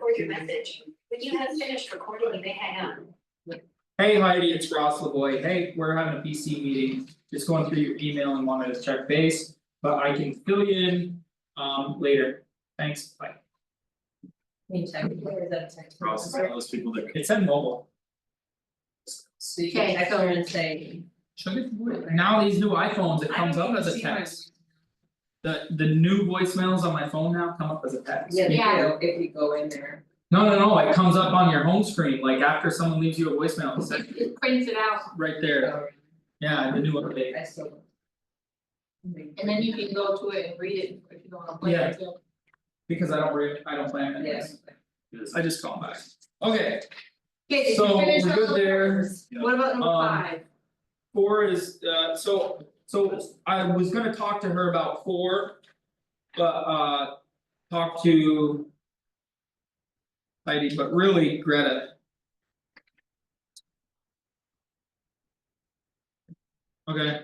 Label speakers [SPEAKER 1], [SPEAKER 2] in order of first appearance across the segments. [SPEAKER 1] forward your message. When you have finished recording, you may hang up.
[SPEAKER 2] Hey Heidi, it's Ross LaVoy, hey, we're having a PC meeting, just going through your email and wanted to check base, but I can fill you in. Um later, thanks, bye,
[SPEAKER 3] Can you check, or is that a text?
[SPEAKER 4] Ross is one of those people that
[SPEAKER 2] it's in mobile.
[SPEAKER 3] So you can text her and say.
[SPEAKER 2] Should it, would- now these new iPhones, it comes up as a text, the the new voicemails on my phone now come up as a text.
[SPEAKER 3] Yeah, they
[SPEAKER 1] Yeah.
[SPEAKER 3] do, if you go in there.
[SPEAKER 2] No, no, no, it comes up on your home screen, like after someone leaves you a voicemail, it's like
[SPEAKER 1] It prints it out
[SPEAKER 2] right there,
[SPEAKER 3] so
[SPEAKER 2] yeah, the new update,
[SPEAKER 3] um, I still.
[SPEAKER 5] And then you can go to it and read it if you don't wanna play
[SPEAKER 2] Yeah.
[SPEAKER 5] it. Yeah.
[SPEAKER 2] because I don't re, I don't plan anyways.
[SPEAKER 3] Yes.
[SPEAKER 4] is,
[SPEAKER 2] I just call them back, okay,
[SPEAKER 5] Okay, did
[SPEAKER 2] So,
[SPEAKER 5] you finish
[SPEAKER 2] we're
[SPEAKER 5] on
[SPEAKER 2] good
[SPEAKER 5] those
[SPEAKER 2] there.
[SPEAKER 5] numbers? What about number
[SPEAKER 2] Um,
[SPEAKER 5] five?
[SPEAKER 2] four is uh so so I was gonna talk to her about four. But uh talk to. Heidi, but really Greta. Okay.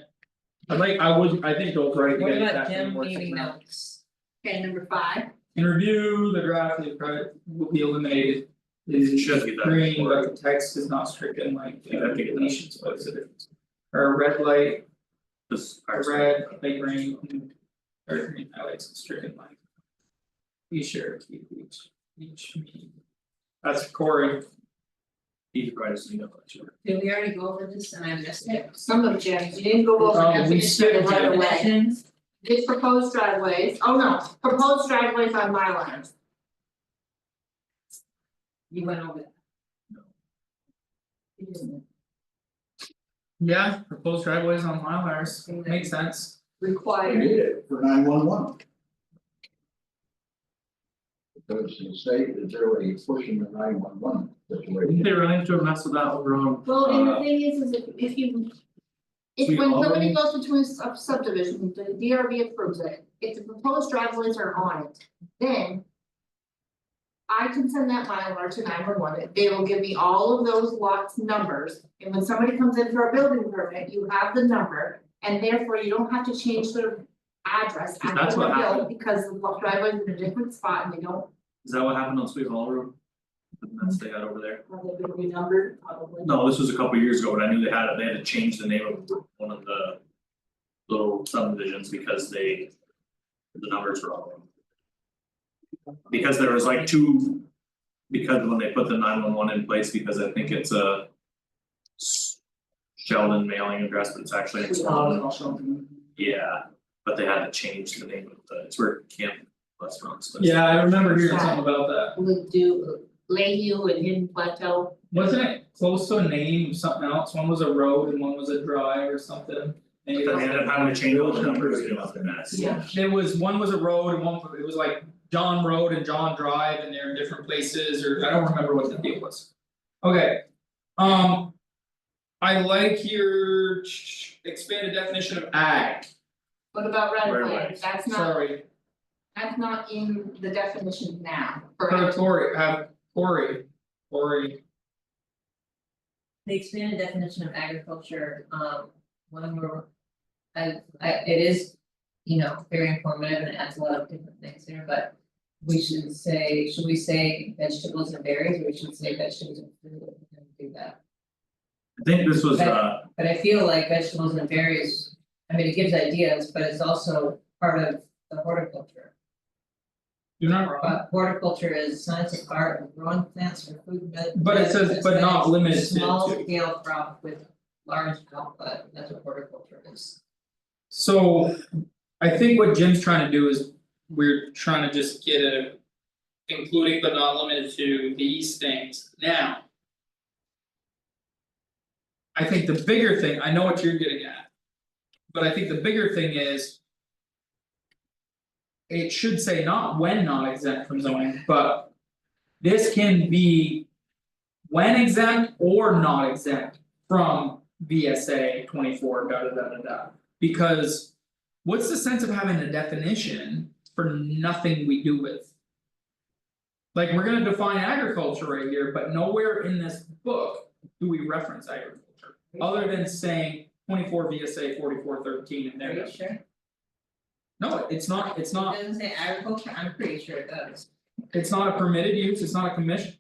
[SPEAKER 2] I like, I would, I think those right,
[SPEAKER 3] What
[SPEAKER 2] yeah,
[SPEAKER 3] about
[SPEAKER 2] exactly,
[SPEAKER 3] Jim
[SPEAKER 2] works
[SPEAKER 3] leaving
[SPEAKER 2] around.
[SPEAKER 3] notes?
[SPEAKER 5] Okay, number five,
[SPEAKER 2] And review the draft, the private will be eliminated. Is
[SPEAKER 4] Should be that
[SPEAKER 2] green,
[SPEAKER 4] before.
[SPEAKER 2] but the text is not stricken like uh,
[SPEAKER 4] Yeah, I think it
[SPEAKER 2] deletions, but it's a difference. Or red light
[SPEAKER 4] this
[SPEAKER 2] I read like green. Or green highlights and stricken line. Be sure to keep each each meeting. That's Corey,
[SPEAKER 4] He provides me no lecture.
[SPEAKER 3] Did we already go over this and I missed it?
[SPEAKER 5] some of Jen, you didn't go over
[SPEAKER 2] Oh,
[SPEAKER 5] that,
[SPEAKER 2] we
[SPEAKER 5] finish the
[SPEAKER 2] skipped
[SPEAKER 5] right
[SPEAKER 2] it.
[SPEAKER 5] of way.
[SPEAKER 3] Questions?
[SPEAKER 5] Did proposed driveways, oh no, proposed driveways on my lines,
[SPEAKER 3] You went over that.
[SPEAKER 4] No.
[SPEAKER 3] You didn't.
[SPEAKER 2] yeah, proposed driveways on Mylars, makes sense.
[SPEAKER 6] I
[SPEAKER 5] required.
[SPEAKER 6] did it for nine one one. Because the state is really pushing the nine one one situation.
[SPEAKER 2] They run into a mess with that over on.
[SPEAKER 5] Well, and
[SPEAKER 2] Uh,
[SPEAKER 5] the thing is, is if if you.
[SPEAKER 4] we
[SPEAKER 5] If when somebody
[SPEAKER 4] already-
[SPEAKER 5] goes into a sub- subdivision, the DRB approves it, if the proposed driveways are on it, then. I can send that Mylar to nine one one, they will give me all of those lots numbers, and when somebody comes in for a building permit, you have the number. And therefore you don't have to change their address
[SPEAKER 4] Because
[SPEAKER 5] after
[SPEAKER 4] that's
[SPEAKER 5] the
[SPEAKER 4] what
[SPEAKER 5] bill,
[SPEAKER 4] happened.
[SPEAKER 5] because the lo- driveway's in a different spot and they don't,
[SPEAKER 4] Is that what happened on Sweet Hall Road? The mess they had over there?
[SPEAKER 5] have they been renumbered, probably.
[SPEAKER 4] No, this was a couple years ago, but I knew they had it, they had to change the name of one of the. Little subdivisions because they. The numbers were all wrong. Because there was like two. Because when they put the nine one one in place, because I think it's a. s- Sheldon mailing address, but it's actually in Swan. yeah, but they had to change the name of the, it's where Camp Restaurants. was.
[SPEAKER 2] Yeah, I remember hearing something about that,
[SPEAKER 5] would do Lakeview and Hidden Plateau.
[SPEAKER 2] wasn't it close to a name of something else, one was a road and one was a drive or something?
[SPEAKER 4] But
[SPEAKER 2] Maybe
[SPEAKER 4] they
[SPEAKER 2] that's-
[SPEAKER 4] ended up having to change all the numbers, you know, it's a mess.
[SPEAKER 5] Yeah.
[SPEAKER 2] There was, one was a road and one, it was like John Road and John Drive and they're in different places or I don't remember what the deal was. Okay, um. I like your ch- expanded definition of ag,
[SPEAKER 5] What about right of
[SPEAKER 4] Right of
[SPEAKER 5] way?
[SPEAKER 4] ways.
[SPEAKER 5] That's not,
[SPEAKER 2] sorry,
[SPEAKER 5] that's not in the definition now,
[SPEAKER 2] have
[SPEAKER 5] correct?
[SPEAKER 2] Cory, have Cory, Cory,
[SPEAKER 3] The expanded definition of agriculture, um, one more. I, I, it is, you know, very informative and adds a lot of different things there, but. We should say, should we say vegetables and berries, or we should say vegetables and fruit, we can do that,
[SPEAKER 4] I think this was uh,
[SPEAKER 3] but I feel like vegetables and berries. I mean, it gives ideas, but it's also part of the horticulture,
[SPEAKER 2] you're not wrong.
[SPEAKER 3] but horticulture is science of art of growing plants for food, but.
[SPEAKER 2] But it says, but not limited to.
[SPEAKER 3] Small scale crop with large output, that's what horticulture is.
[SPEAKER 2] So, I think what Jim's trying to do is, we're trying to just get a. Including but not limited to these things now. I think the bigger thing, I know what you're getting at. But I think the bigger thing is. It should say not when not exempt from zoning, but. This can be. When exempt or not exempt from VSA twenty four, da da da da da. Because what's the sense of having a definition for nothing we do with? Like, we're gonna define agriculture right here, but nowhere in this book do we reference agriculture, other than saying twenty four VSA forty four thirteen and
[SPEAKER 3] Are
[SPEAKER 2] there.
[SPEAKER 3] you sure?
[SPEAKER 2] No, it's not, it's
[SPEAKER 3] It
[SPEAKER 2] not,
[SPEAKER 3] doesn't say agriculture, I'm pretty sure it does.
[SPEAKER 2] It's not a permitted use, it's not a commission,